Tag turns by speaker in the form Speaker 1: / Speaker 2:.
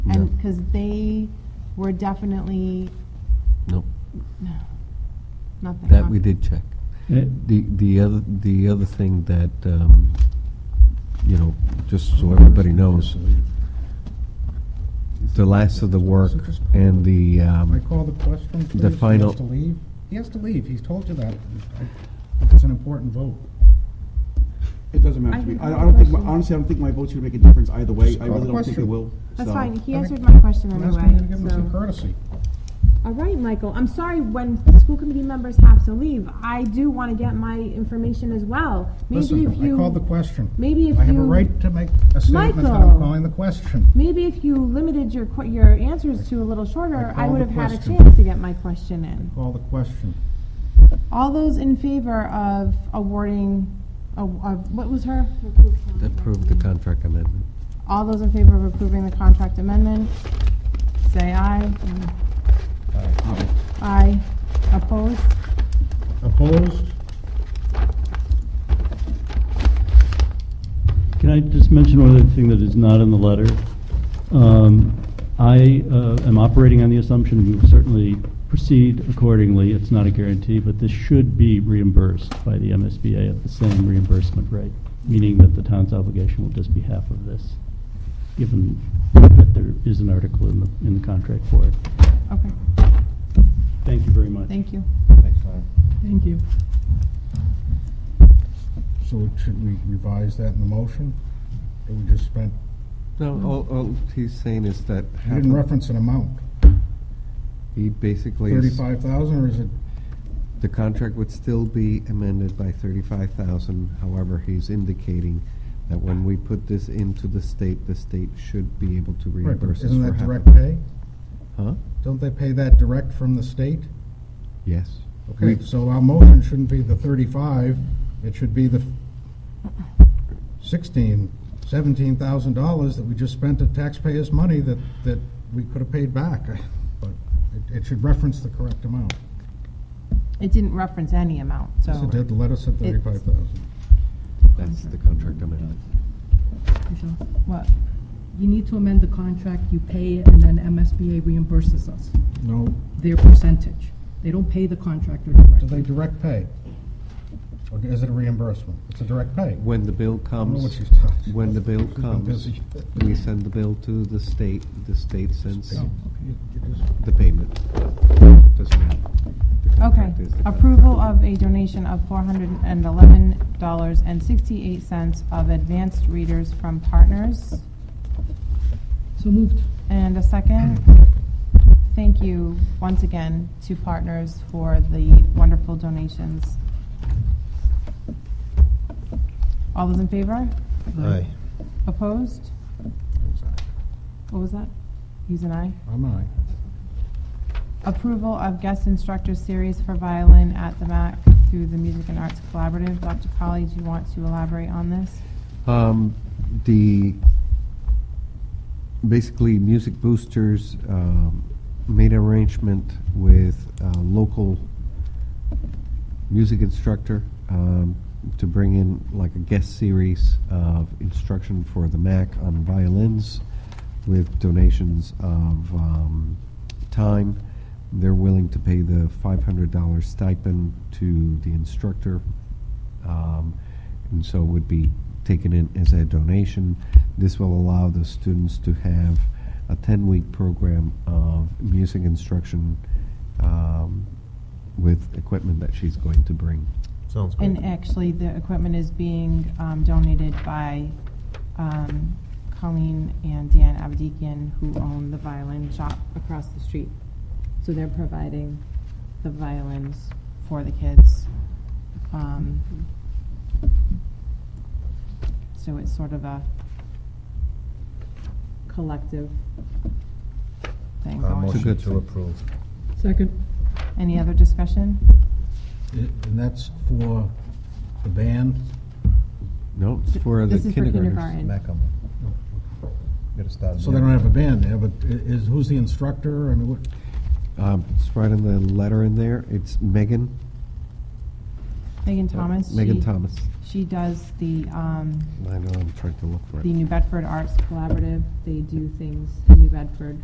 Speaker 1: them, because they were definitely,
Speaker 2: No,
Speaker 1: no, nothing.
Speaker 2: that we did check.
Speaker 3: Eh,
Speaker 2: The, the other, the other thing that, um, you know, just so everybody knows, the last of the work and the,
Speaker 4: Can I
Speaker 2: um,
Speaker 4: call the question, please?
Speaker 2: The final-
Speaker 4: He has to leave? He has to leave, he's told you that. I- It's an important vote.
Speaker 5: It doesn't matter to me.
Speaker 1: I
Speaker 5: I
Speaker 1: have
Speaker 5: I don't think,
Speaker 1: a
Speaker 5: my-
Speaker 1: question.
Speaker 5: honestly, I don't think my vote's gonna make a difference either way.
Speaker 4: Just
Speaker 5: I
Speaker 4: call
Speaker 5: really
Speaker 4: the
Speaker 5: don't think it
Speaker 4: question.
Speaker 5: will.
Speaker 1: That's
Speaker 5: so-
Speaker 1: fine, he
Speaker 4: I
Speaker 1: answered
Speaker 4: think-
Speaker 1: my question
Speaker 4: I'm asking
Speaker 1: anyway,
Speaker 4: you to give him some
Speaker 1: so.
Speaker 4: courtesy.
Speaker 1: All right, Michael, I'm sorry when school committee members have to leave, I do want to get my information as well. Maybe if
Speaker 4: Listen, I called the
Speaker 1: you,
Speaker 4: question.
Speaker 1: maybe if
Speaker 4: I have a
Speaker 1: you-
Speaker 4: right to make a statement that
Speaker 1: Michael.
Speaker 4: I'm calling the question.
Speaker 1: maybe if you limited your, que- your answers to a little shorter,
Speaker 4: I
Speaker 1: I
Speaker 4: called
Speaker 1: would
Speaker 4: the
Speaker 1: have had a
Speaker 4: question.
Speaker 1: chance to get my question in.
Speaker 4: Call the question.
Speaker 1: All those in favor of awarding, of, of- what was her?
Speaker 2: approved the contract amendment.
Speaker 1: All those in favor of approving the contract amendment, say aye.
Speaker 4: Uh,
Speaker 1: Aye. Opposed?
Speaker 4: Opposed?
Speaker 3: Can I just mention one other thing that is not in the letter? Um, I uh, am operating on the assumption we will certainly proceed accordingly. It's not a guarantee, but this should be reimbursed by the MSBA at the same reimbursement rate, meaning that the town's obligation will just be half of this, given that there is an article in the, in the contract for it.
Speaker 1: Okay,
Speaker 3: Thank you very much.
Speaker 1: thank you.
Speaker 4: Thanks, Larry.
Speaker 1: Thank you.
Speaker 4: So should we revise that in the motion? Or we just spent,
Speaker 2: No, all, all he's saying is that.
Speaker 4: you didn't reference an amount.
Speaker 2: He basically is,
Speaker 4: Thirty-five thousand, or is it,
Speaker 2: the contract would still be amended by thirty-five thousand. However, he's indicating that when we put this into the state, the state should be able to
Speaker 4: right, but
Speaker 2: reimburse us
Speaker 4: isn't
Speaker 2: for
Speaker 4: that
Speaker 2: half
Speaker 4: direct
Speaker 2: of it.
Speaker 4: pay?
Speaker 2: Huh?
Speaker 4: Don't they pay that direct from the state?
Speaker 2: Yes.
Speaker 4: Okay,
Speaker 2: We-
Speaker 4: so our motion shouldn't be the 35, it should be the 16, $17,000 that we just spent of taxpayers' money that, that we could have paid back. But it, it should reference the correct amount.
Speaker 1: It didn't reference any amount, so.
Speaker 4: So did the letter said 35,000.
Speaker 2: That's the contract amendment.
Speaker 6: Michelle,
Speaker 1: What?
Speaker 6: You need to amend the contract, you pay it, and then MSBA reimburses us
Speaker 4: No,
Speaker 6: their percentage. They don't pay the contractor
Speaker 4: do
Speaker 6: directly.
Speaker 4: they direct pay? Or is it a reimbursement? It's a direct pay.
Speaker 2: When the bill
Speaker 4: I don't know what
Speaker 2: comes,
Speaker 4: she's talking.
Speaker 2: when the bill
Speaker 4: She's been
Speaker 2: comes,
Speaker 4: busy.
Speaker 2: we send the bill to the state, the state sends
Speaker 4: Oh, okay. You just-
Speaker 2: the payment. Doesn't matter. The
Speaker 1: Okay,
Speaker 2: contract is the contract.
Speaker 1: approval of a donation of four hundred and eleven dollars and sixty-eight cents of advanced readers from partners.
Speaker 6: So moved.
Speaker 1: And a second, thank you once again to partners for the wonderful donations. All those in favor?
Speaker 6: Aye.
Speaker 1: Opposed? What was that? He's an aye.
Speaker 4: I'm aye.
Speaker 1: Approval of guest instructor series for violin at the MAC through the Music and Arts Collaborative. Dr. Colley, do you want to elaborate on this?
Speaker 2: Um, the, basically, Music Boosters um, made an arrangement with a local music instructor um, to bring in like a guest series of instruction for the MAC on violins with donations of um, time. They're willing to pay the $500 stipend to the instructor. Um, and so it would be taken in as a donation. This will allow the students to have a 10 week program of music instruction um, with equipment that she's going to bring.
Speaker 7: Sounds great.
Speaker 1: And actually, the equipment is being um, donated by um, Colleen and Dan Abadikian, who own the violin shop across the street. So they're providing the violins for the kids. Um, So it's sort of a collective thing
Speaker 7: Uh,
Speaker 1: going.
Speaker 7: Motion
Speaker 2: good
Speaker 7: to
Speaker 2: thing.
Speaker 7: approve.
Speaker 6: Second.
Speaker 1: Any other discussion?
Speaker 4: I- And that's for the band?
Speaker 2: No, it's for the
Speaker 1: This is for
Speaker 2: kindergartners.
Speaker 1: kindergarten.
Speaker 7: Macum. Get it started.
Speaker 4: Oh, So they don't have a band there, but i- is, who's the instructor? I mean, what,
Speaker 2: Um, it's right in the letter in there. It's Megan.
Speaker 1: Megan Thomas?
Speaker 2: Uh, Megan
Speaker 1: she-
Speaker 2: Thomas.
Speaker 1: She does the, um,
Speaker 2: I know I'm trying to look for it.
Speaker 1: the New Bedford Arts Collaborative. They do things in New Bedford